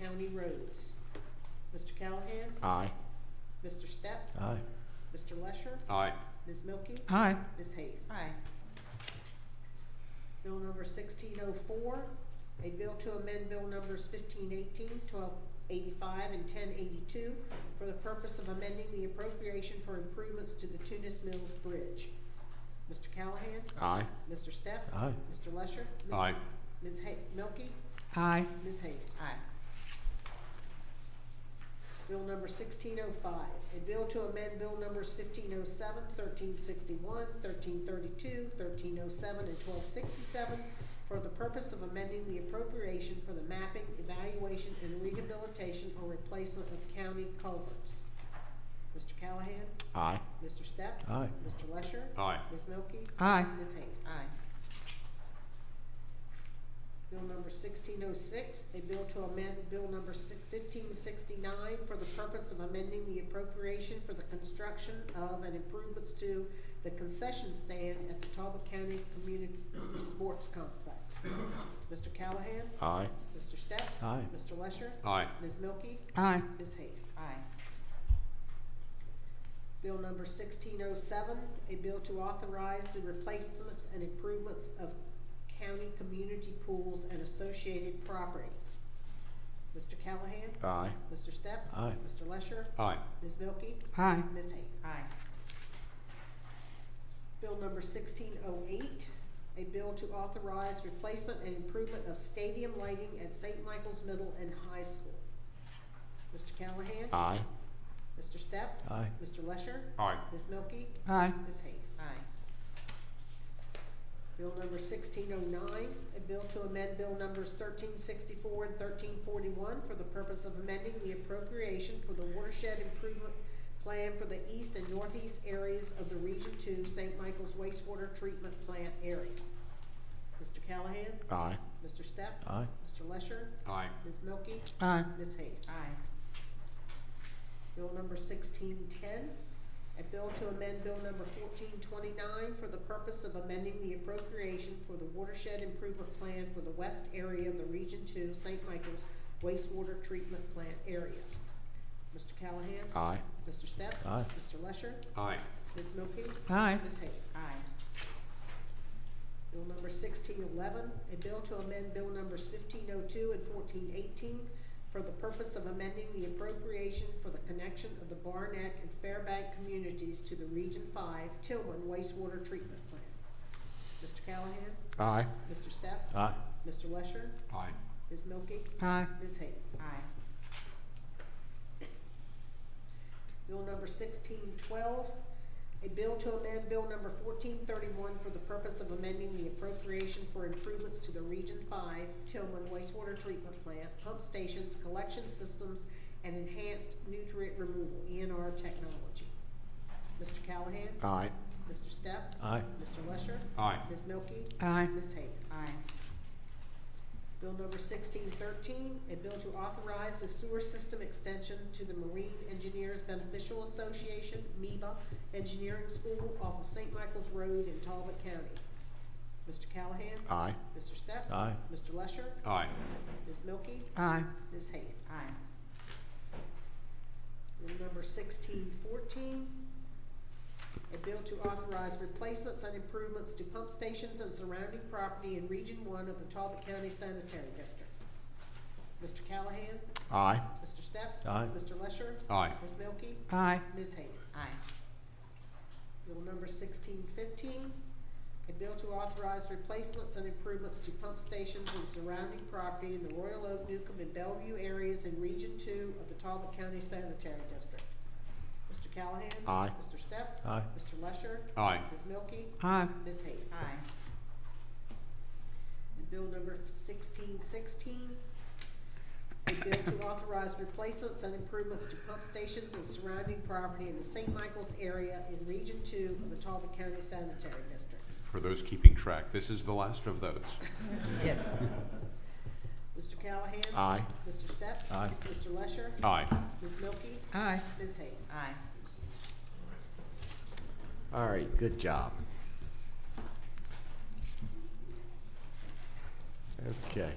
county roads. Mr. Callahan? Aye. Mr. Step? Aye. Mr. Lesher? Aye. Ms. Milky? Aye. Ms. Hayes? Aye. Bill number sixteen oh four, a bill to amend bill numbers 1518, 1285, and ten eighty-two for the purpose of amending the appropriation for improvements to the Tunis Mills Bridge. Mr. Callahan? Aye. Mr. Step? Aye. Mr. Lesher? Ms. Aye. Ms. Hay, Milky? Aye. Ms. Hayes? Aye. Bill number sixteen oh five, a bill to amend bill numbers 1507, 1361, 1332, 1307, and twelve sixty-seven for the purpose of amending the appropriation for the mapping, evaluation, and rehabilitation or replacement of county culverts. Mr. Callahan? Aye. Mr. Step? Aye. Mr. Lesher? Aye. Ms. Milky? Aye. Ms. Hayes? Aye. Bill number sixteen oh six, a bill to amend bill number fifteen sixty-nine for the purpose of amending the appropriation for the construction of and improvements to the concession stand at the Talbot County Community Sports Complex. Mr. Callahan? Aye. Mr. Step? Aye. Mr. Lesher? Aye. Ms. Milky? Aye. Ms. Hayes? Aye. Bill number sixteen oh seven, a bill to authorize the replacements and improvements of county community pools and associated property. Mr. Callahan? Aye. Mr. Step? Aye. Mr. Lesher? Aye. Ms. Milky? Aye. Ms. Hayes? Aye. Bill number sixteen oh eight, a bill to authorize replacement and improvement of stadium lighting at St. Michael's Middle and High School. Mr. Callahan? Aye. Mr. Step? Aye. Mr. Lesher? Aye. Ms. Milky? Aye. Ms. Hayes? Aye. Bill number sixteen oh nine, a bill to amend bill numbers thirteen sixty-four and thirteen forty-one for the purpose of amending the appropriation for the watershed improvement plan for the east and northeast areas of the Region Two St. Michael's wastewater treatment plant area. Mr. Callahan? Aye. Mr. Step? Aye. Mr. Lesher? Aye. Ms. Milky? Aye. Ms. Hayes? Aye. Bill number sixteen ten, a bill to amend bill number fourteen twenty-nine for the purpose of amending the appropriation for the watershed improvement plan for the west area of the Region Two St. Michael's wastewater treatment plant area. Mr. Callahan? Aye. Mr. Step? Aye. Mr. Lesher? Aye. Ms. Milky? Aye. Ms. Hayes? Aye. Bill number sixteen eleven, a bill to amend bill numbers fifteen oh two and fourteen eighteen for the purpose of amending the appropriation for the connection of the Barnack and Fairbank communities to the Region Five Tillman wastewater treatment plant. Mr. Callahan? Aye. Mr. Step? Aye. Mr. Lesher? Aye. Ms. Milky? Aye. Ms. Hayes? Aye. Bill number sixteen twelve, a bill to amend bill number fourteen thirty-one for the purpose of amending the appropriation for improvements to the Region Five Tillman wastewater treatment plant, pump stations, collection systems, and enhanced nutrient removal, ENR technology. Mr. Callahan? Aye. Mr. Step? Aye. Mr. Lesher? Aye. Ms. Milky? Aye. Ms. Hayes? Aye. Bill number sixteen thirteen, a bill to authorize the sewer system extension to the Marine Engineers Beneficial Association, MEBA, Engineering School off of St. Michael's Road in Talbot County. Mr. Callahan? Aye. Mr. Step? Aye. Mr. Lesher? Aye. Ms. Milky? Aye. Ms. Hayes? Aye. Bill number sixteen fourteen, a bill to authorize replacements and improvements to pump stations and surrounding property in Region One of the Talbot County Sanitary District. Mr. Callahan? Aye. Mr. Step? Aye. Mr. Lesher? Aye. Ms. Milky? Aye. Ms. Hayes? Aye. Bill number sixteen fifteen, a bill to authorize replacements and improvements to pump stations and surrounding property in the Royal Oak, Newcomb, and Bellevue areas in Region Two of the Talbot County Sanitary District. Mr. Callahan? Aye. Mr. Step? Aye. Mr. Lesher? Aye. Ms. Milky? Aye. Ms. Hayes? Aye. And bill number sixteen sixteen, a bill to authorize replacements and improvements to pump stations and surrounding property in the St. Michael's area in Region Two of the Talbot County Sanitary District. For those keeping track, this is the last of those. Yes. Mr. Callahan? Aye. Mr. Step? Aye. Mr. Lesher? Aye. Ms. Milky? Aye. Ms. Hayes? Aye. All right, good job. Okay.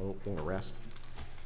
Oh, want to rest?